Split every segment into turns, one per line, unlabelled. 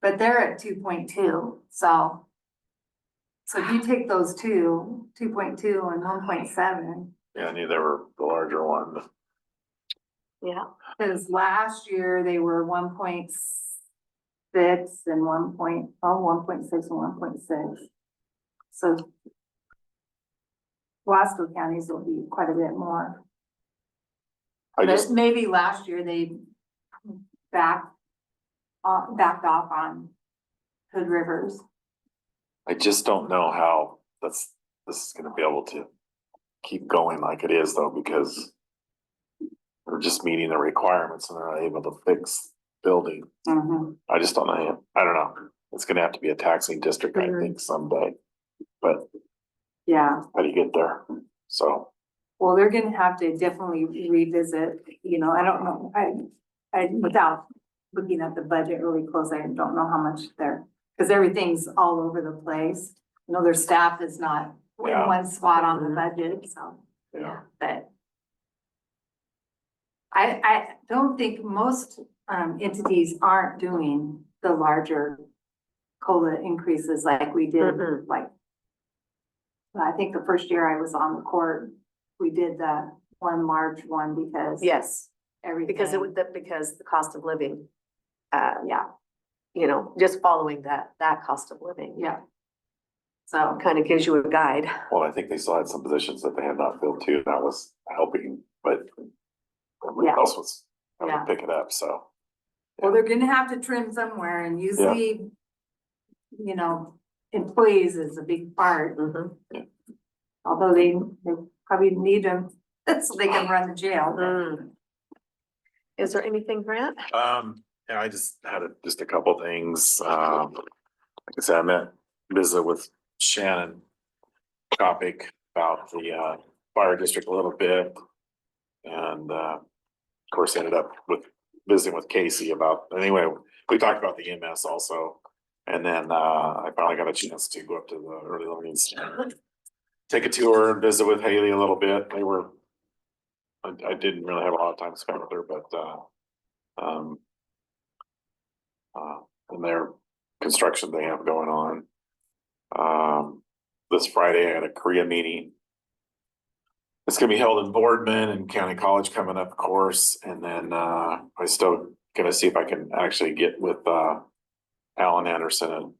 But they're at two point two, so. So if you take those two, two point two and one point seven,
Yeah, I knew they were the larger one.
Yeah,
cause last year they were one point six and one point, oh, one point six and one point six. So. Wasco counties will be quite a bit more.
I
But
just,
maybe last year they backed, uh, backed off on Hood Rivers.
I just don't know how that's, this is gonna be able to keep going like it is though, because they're just meeting the requirements and they're not able to fix building. I just don't know. I don't know. It's gonna have to be a taxing district, I think someday. But
Yeah,
how do you get there? So
well, they're gonna have to definitely revisit, you know, I don't know, I, I, without looking at the budget really close, I don't know how much they're, because everything's all over the place. You know, their staff is not in
Yeah.
one spot on the budget, so.
Yeah.
But. I, I don't think most, um, entities aren't doing the larger COLA increases like we did,
Mm-mm.
like. I think the first year I was on the court, we did the one large one because.
yes,
Everything.
because it would, that- because the cost of living, uh,
Yeah,
you know, just following that, that cost of living.
yeah. So,
Kind of gives you a guide.
Well, I think they still had some positions that they had not filled too, and that was helping, but everybody
Yeah.
else was having
Yeah.
to pick it up, so.
well, they're gonna have to trim somewhere and usually, you know, employees is a big part.
Mhm.
Although they, they probably need them, so they can run the jail.
Mm. Is there anything, Grant?
Um, yeah, I just had a- just a couple things, um, like I said, I met, visit with Shannon. Topic about the uh fire district a little bit. And uh, of course, ended up with visiting with Casey about, anyway, we talked about the EMS also. And then uh, I finally got a chance to go up to the early learning center. Take a tour and visit with Haley a little bit, they were. I I didn't really have a lot of time spent with her, but uh. Um. Uh, and their construction they have going on. Um, this Friday I had a Korea meeting. It's gonna be held in Boardman and County College coming up, of course, and then, uh, I still gonna see if I can actually get with, uh. Alan Anderson and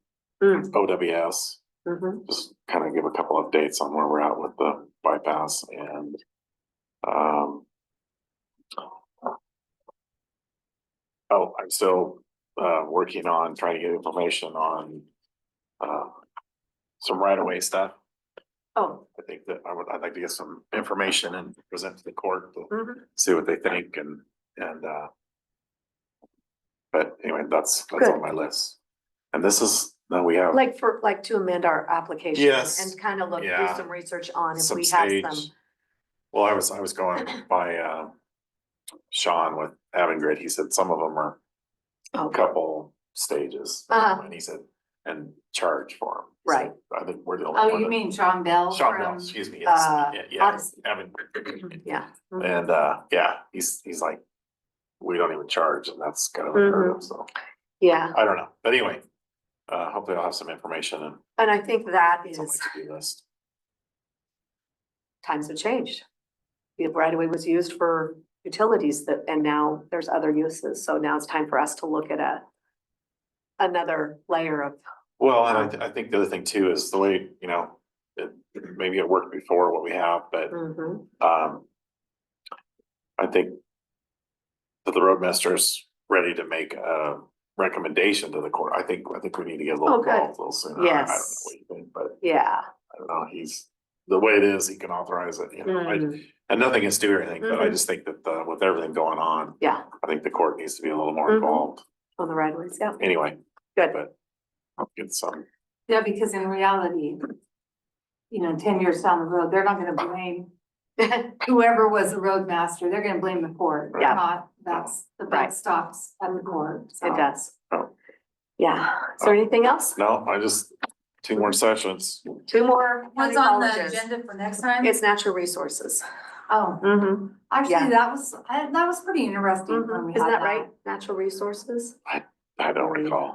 Mm.
OWS,
Mhm.
just kind of give a couple updates on where we're at with the bypass and, um. Oh, I'm still, uh, working on trying to get information on, uh, some right of way stuff.
Oh,
I think that I would, I'd like to get some information and present to the court to
mhm.
see what they think and, and, uh. But anyway, that's, that's on
Good.
my list. And this is, now we have
like for, like to amend our application.
Yes.
And kind of look, do
Yeah.
some research on if
some
we have
stage.
some.
Well, I was, I was going by, uh, Sean with Avangrid, he said some of them are a
Oh,
couple stages.
Uh-huh.
And he said, and charge for them.
Right.
I think we're the only.
Oh,
one
you
that-
mean Sean Bell
Sean, Bell,
from-
excuse me, yes,
uh,
yeah, yeah,
Odyssey.
Avangrid.
Yeah. Mhm.
And, uh, yeah, he's, he's like, we don't even charge, and that's kind of, a
Mm-hmm.
hurdle, so,
Yeah,
I don't know, but anyway. Uh, hopefully I'll have some information and
and I think that
it's on
is,
my to-do list.
times have changed. The right of way was used for utilities that, and now there's other uses, so now it's time for us to look at a. Another layer of,
Well, and I, th- I think the other thing too is the way, you know, it, maybe it worked before what we have, but
Mhm.
Um. I think. That the roadmaster's ready to make a recommendation to the court. I think, I think we need to get a little
Oh, good.
involved a little sooner. I- I don't know
Yes.
what you think, But
yeah.
I don't know, he's, the way it is, he can authorize it, you know, I-
Mhm.
and nothing is due or anything, but I
Mhm.
just think that, uh, with everything going on.
Yeah.
I think the court needs to be a little more
Mhm.
involved.
On the right of ways, yeah,
Anyway,
good.
But- I'll get some,
Yeah, because in reality, you know, ten years down the road, they're not gonna blame whoever was the roadmaster, they're gonna blame the court,
Yeah.
not, that's, the buck
Right.
stops at the court. so.
It does.
Oh.
Yeah, is there anything else?
no, I just, two more sessions.
Two more county
What's on the
colleges.
agenda for next time?
It's natural resources.
Oh,
Mhm. Yeah.
actually, that was, I, that was pretty interesting. when we
Mhm. Isn't
had
that right? Natural resources?
I don't recall.